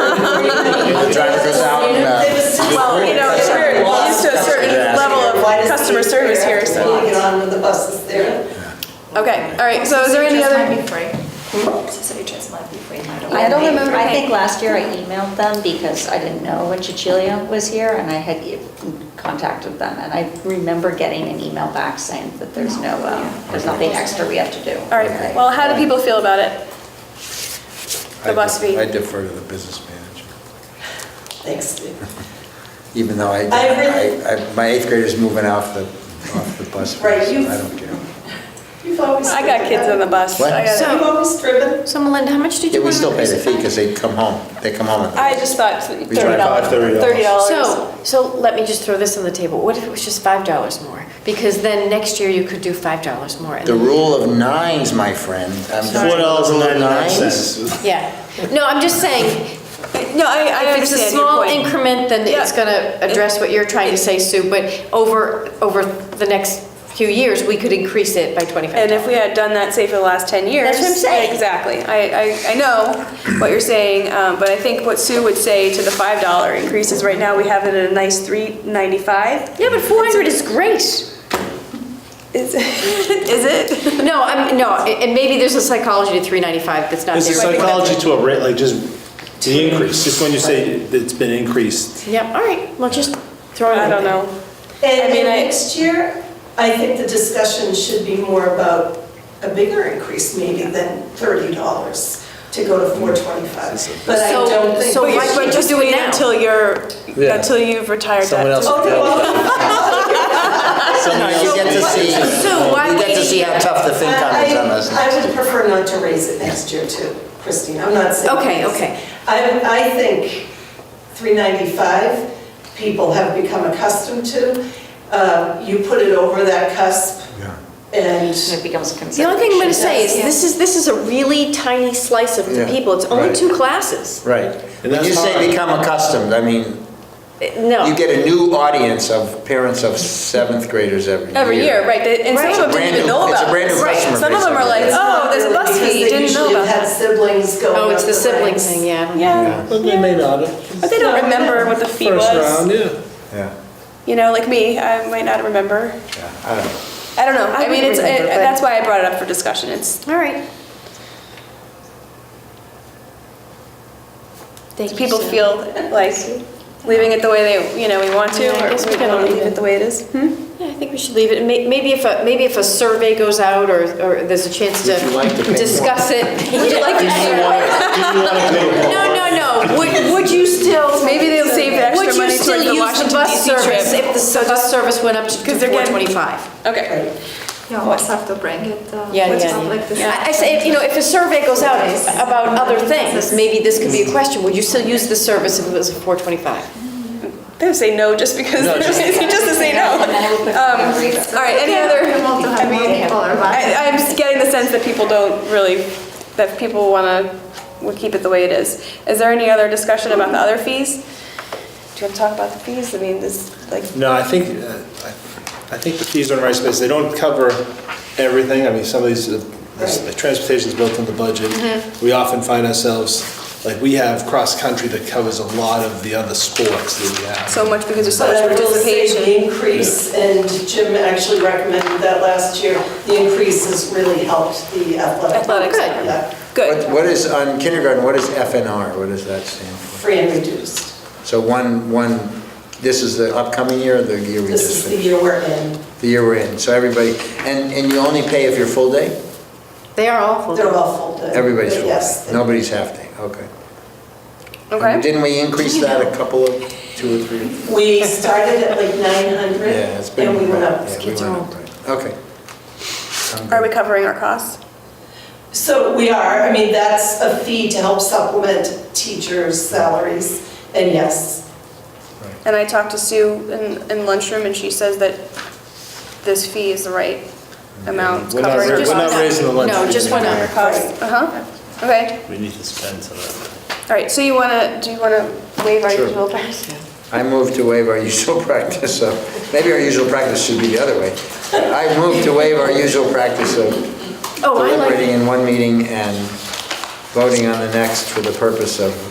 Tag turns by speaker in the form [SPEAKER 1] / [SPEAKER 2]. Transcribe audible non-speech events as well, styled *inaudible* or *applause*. [SPEAKER 1] The driver goes out and, uh,
[SPEAKER 2] Well, you know, sure, we're used to a certain level of customer service here, so.
[SPEAKER 3] Get on with the buses there.
[SPEAKER 2] *laughs* Okay, all right, so is there any other?
[SPEAKER 4] CityTrust might be free.
[SPEAKER 5] I don't remember, I think last year I emailed them because I didn't know when Cecilia was here and I had e- contacted them. And I remember getting an email back saying that there's no, um, there's nothing extra we have to do.
[SPEAKER 2] All right, well, how do people feel about it? The bus fee.
[SPEAKER 1] I defer to the business manager,
[SPEAKER 3] Thanks, Steve.
[SPEAKER 1] even though I,
[SPEAKER 3] I really-
[SPEAKER 1] I- I- my eighth grader's moving off the, off the bus.
[SPEAKER 3] Right,
[SPEAKER 1] so
[SPEAKER 3] you-
[SPEAKER 1] I don't care.
[SPEAKER 3] You've always.
[SPEAKER 2] I got kids on the bus.
[SPEAKER 1] What?
[SPEAKER 2] I got-
[SPEAKER 3] You've always driven.
[SPEAKER 4] So Melinda, how much did
[SPEAKER 1] Yeah,
[SPEAKER 4] you
[SPEAKER 1] we
[SPEAKER 4] want to
[SPEAKER 1] still pay the
[SPEAKER 4] increase
[SPEAKER 1] fee
[SPEAKER 4] it by?
[SPEAKER 1] because they come home, they come home.
[SPEAKER 2] I just thought
[SPEAKER 1] We tried
[SPEAKER 2] thirty
[SPEAKER 1] about
[SPEAKER 2] dollars.
[SPEAKER 1] $30.
[SPEAKER 2] Thirty dollars.
[SPEAKER 4] So, so let me just throw this on the table. What if it was just five dollars more? Because then next year you could do five dollars more. and-
[SPEAKER 1] The rule of nines, my friend. I'm
[SPEAKER 6] Four dollars and ninety-nine
[SPEAKER 1] Nines?
[SPEAKER 6] cents.
[SPEAKER 4] Yeah. No, I'm just saying,
[SPEAKER 2] No, I, I
[SPEAKER 4] if it's a
[SPEAKER 2] understand your
[SPEAKER 4] small
[SPEAKER 2] point.
[SPEAKER 4] increment, then it's
[SPEAKER 2] Yeah.
[SPEAKER 4] gonna address what you're trying to say, Sue, but over, over the next few years, we could increase it by twenty-five
[SPEAKER 2] And if we had done that, say, for the last 10 years.
[SPEAKER 5] That's what I'm saying.
[SPEAKER 2] Exactly. I, I, I know what you're saying, um, but I think what Sue would say to the $5 increase is right now we have it at a nice 395.
[SPEAKER 4] Yeah, but four hundred is great.
[SPEAKER 2] Is, is it? *laughs*
[SPEAKER 4] No, I'm, no, and maybe there's a psychology to three ninety-five that's not
[SPEAKER 6] It's a
[SPEAKER 4] there.
[SPEAKER 6] psychology to a rate, like just the increase, just when you say it's been increased.
[SPEAKER 4] Yep, all right, well, just throw it
[SPEAKER 2] I
[SPEAKER 4] out
[SPEAKER 2] don't
[SPEAKER 4] there.
[SPEAKER 2] know. I
[SPEAKER 3] And
[SPEAKER 2] mean,
[SPEAKER 3] and
[SPEAKER 2] I-
[SPEAKER 3] next year, I think the discussion should be more about a bigger increase maybe than thirty dollars to go to four twenty-five. But I
[SPEAKER 4] So-
[SPEAKER 3] don't think.
[SPEAKER 4] so
[SPEAKER 3] we
[SPEAKER 4] why
[SPEAKER 3] should-
[SPEAKER 4] can't you do it
[SPEAKER 2] wait
[SPEAKER 4] now?
[SPEAKER 2] Until you're,
[SPEAKER 1] Yeah.
[SPEAKER 2] until you've retired that.
[SPEAKER 1] Someone else-
[SPEAKER 3] Oh, no.
[SPEAKER 1] So now you get to see,
[SPEAKER 4] So why
[SPEAKER 1] you get to
[SPEAKER 4] wait a
[SPEAKER 1] see how
[SPEAKER 4] year?
[SPEAKER 1] tough the thing
[SPEAKER 3] Uh, I-
[SPEAKER 1] comes on us.
[SPEAKER 3] I I would prefer not to raise it next year too, Christine, I'm not saying.
[SPEAKER 4] Okay,
[SPEAKER 3] this.
[SPEAKER 4] okay.
[SPEAKER 3] I, I think 395, people have become accustomed to. Uh, You put it over that cusp
[SPEAKER 1] Yeah.
[SPEAKER 3] and,
[SPEAKER 5] It becomes a
[SPEAKER 4] The only thing I'm gonna say is,
[SPEAKER 3] Yeah.
[SPEAKER 4] this is, this is a really tiny slice of the
[SPEAKER 1] Yeah,
[SPEAKER 4] people, it's only
[SPEAKER 1] right.
[SPEAKER 4] two classes.
[SPEAKER 1] Right.
[SPEAKER 6] And
[SPEAKER 1] When you
[SPEAKER 6] that's
[SPEAKER 1] say
[SPEAKER 6] hard.
[SPEAKER 1] become accustomed, I mean,
[SPEAKER 4] Eh, No.
[SPEAKER 1] you get a new audience of parents of seventh graders every year.
[SPEAKER 2] Every year, right, they- and some
[SPEAKER 4] Right.
[SPEAKER 2] of them
[SPEAKER 1] Brand
[SPEAKER 2] didn't even
[SPEAKER 1] new-
[SPEAKER 2] know
[SPEAKER 1] it's a
[SPEAKER 2] about
[SPEAKER 1] brand new
[SPEAKER 2] this.
[SPEAKER 1] customer
[SPEAKER 2] Some of
[SPEAKER 1] base
[SPEAKER 2] them are
[SPEAKER 1] every
[SPEAKER 2] like,
[SPEAKER 1] year.
[SPEAKER 2] oh, there's a bus fee, didn't know about
[SPEAKER 3] Because
[SPEAKER 2] that.
[SPEAKER 3] they usually have had siblings going
[SPEAKER 4] Oh, it's
[SPEAKER 3] up
[SPEAKER 4] the sibling
[SPEAKER 3] ranks.
[SPEAKER 4] thing, yeah.
[SPEAKER 2] Yeah,
[SPEAKER 6] Well, they may not have.
[SPEAKER 2] but they don't remember what the fee
[SPEAKER 6] First round,
[SPEAKER 2] was.
[SPEAKER 6] yeah.
[SPEAKER 1] Yeah,
[SPEAKER 2] You know, like me, I might not remember.
[SPEAKER 1] yeah, I don't know.
[SPEAKER 2] I don't know.
[SPEAKER 4] I
[SPEAKER 2] I, mean,
[SPEAKER 4] would
[SPEAKER 2] it's
[SPEAKER 4] remember,
[SPEAKER 2] it,
[SPEAKER 4] but-
[SPEAKER 2] that's why I brought it up for discussion. It's
[SPEAKER 4] All right. Thank you,
[SPEAKER 2] people
[SPEAKER 4] Sue.
[SPEAKER 2] feel like leaving it the way they you know we want to,
[SPEAKER 4] Yeah, I guess
[SPEAKER 2] or
[SPEAKER 4] we
[SPEAKER 2] we
[SPEAKER 4] can
[SPEAKER 2] don't
[SPEAKER 4] leave
[SPEAKER 2] leave
[SPEAKER 4] it.
[SPEAKER 2] it the way it is. Hmm?
[SPEAKER 4] Yeah, I think we should leave it. May- Maybe if a, maybe if a survey goes out or, or there's a chance to
[SPEAKER 1] Would you like to pay more?
[SPEAKER 4] discuss it. Would you like to No, no, no. Would, would you still?
[SPEAKER 2] Maybe they'll save the extra
[SPEAKER 4] Would you
[SPEAKER 2] money towards
[SPEAKER 4] still
[SPEAKER 2] the
[SPEAKER 4] use the
[SPEAKER 2] Washington,
[SPEAKER 4] bus
[SPEAKER 2] DC trip?
[SPEAKER 4] service if the bus service went up to
[SPEAKER 2] Because they're
[SPEAKER 4] four
[SPEAKER 2] getting-
[SPEAKER 4] twenty-five?
[SPEAKER 2] Okay.
[SPEAKER 7] Yeah, what's after Brexit? Uh,
[SPEAKER 4] Yeah,
[SPEAKER 7] what's
[SPEAKER 4] yeah,
[SPEAKER 7] not like this.
[SPEAKER 4] yeah. I I say, you know, if a survey goes out about other things, maybe this could be a question. Would you still use the service if it was four twenty-five?
[SPEAKER 2] They would say no just because *laughs*
[SPEAKER 1] No,
[SPEAKER 2] just,
[SPEAKER 1] just-
[SPEAKER 2] to say no.
[SPEAKER 4] *laughs* Oh,
[SPEAKER 2] Um, all right. Any
[SPEAKER 7] We want
[SPEAKER 2] other?
[SPEAKER 7] to have
[SPEAKER 2] I
[SPEAKER 7] more
[SPEAKER 2] mean,
[SPEAKER 7] people around.
[SPEAKER 2] I, I'm just getting the sense that people don't really that people want to will keep it the way it is. Is there any other discussion about the other fees? Do you want to talk about the fees? I mean, this like
[SPEAKER 6] No, I think, uh, I I think the fees on rice space, they don't cover everything. I mean, some of these, uh, this-
[SPEAKER 3] Right.
[SPEAKER 6] transportation's built in the budget.
[SPEAKER 2] Mm-hmm.
[SPEAKER 6] We often find ourselves, like, we have cross-country that covers a lot of the other sports that we have.
[SPEAKER 2] so much because there's so
[SPEAKER 3] But I
[SPEAKER 2] much
[SPEAKER 3] will say
[SPEAKER 2] participation.
[SPEAKER 3] the increase, and Jim actually recommended that last year, the increase has really helped the athletic.
[SPEAKER 2] Athletics.
[SPEAKER 4] Good.
[SPEAKER 3] Yeah,
[SPEAKER 2] Good.
[SPEAKER 1] What- What is, on kindergarten, what is FNR? What does that stand for?
[SPEAKER 3] free and reduced.
[SPEAKER 1] So one, one, this is the upcoming year or the year we
[SPEAKER 3] This
[SPEAKER 1] just
[SPEAKER 3] is the
[SPEAKER 1] finished?
[SPEAKER 3] year we're in.
[SPEAKER 1] The year we're in, so everybody, and, and you only pay if you're full day?
[SPEAKER 4] They are awful.
[SPEAKER 3] They're all full day.
[SPEAKER 1] Everybody's full day,
[SPEAKER 3] Yes.
[SPEAKER 1] nobody's half day, okay. And
[SPEAKER 2] Okay.
[SPEAKER 1] Didn't we increase that a couple of, two or three?
[SPEAKER 3] We started at like 900.
[SPEAKER 1] Yeah, it's been.
[SPEAKER 3] And we went up.
[SPEAKER 1] yeah, we
[SPEAKER 4] kids
[SPEAKER 1] went
[SPEAKER 4] are
[SPEAKER 1] up, right. Okay. I'm good.
[SPEAKER 2] Are we covering our costs?
[SPEAKER 3] So we are, I mean, that's a fee to help supplement teachers' salaries. And yes,
[SPEAKER 2] And I talked to Sue in, in lunchroom and she says that this fee is the right amount it's
[SPEAKER 6] We're not
[SPEAKER 2] covering
[SPEAKER 6] ra-
[SPEAKER 2] our
[SPEAKER 6] we're not
[SPEAKER 2] costs.
[SPEAKER 6] raising the lunch.
[SPEAKER 4] No, just went up.
[SPEAKER 2] Uh-huh, okay.
[SPEAKER 8] We need to spend some of that.
[SPEAKER 2] All right, so you wanna, do you wanna waive our
[SPEAKER 1] Sure.
[SPEAKER 2] usual price?
[SPEAKER 1] I move to waive our usual *laughs* practice of, maybe our usual practice should be the other way. I move to waive our usual practice of
[SPEAKER 4] Oh, I like
[SPEAKER 1] deliberating in one meeting and voting on the next for the purpose of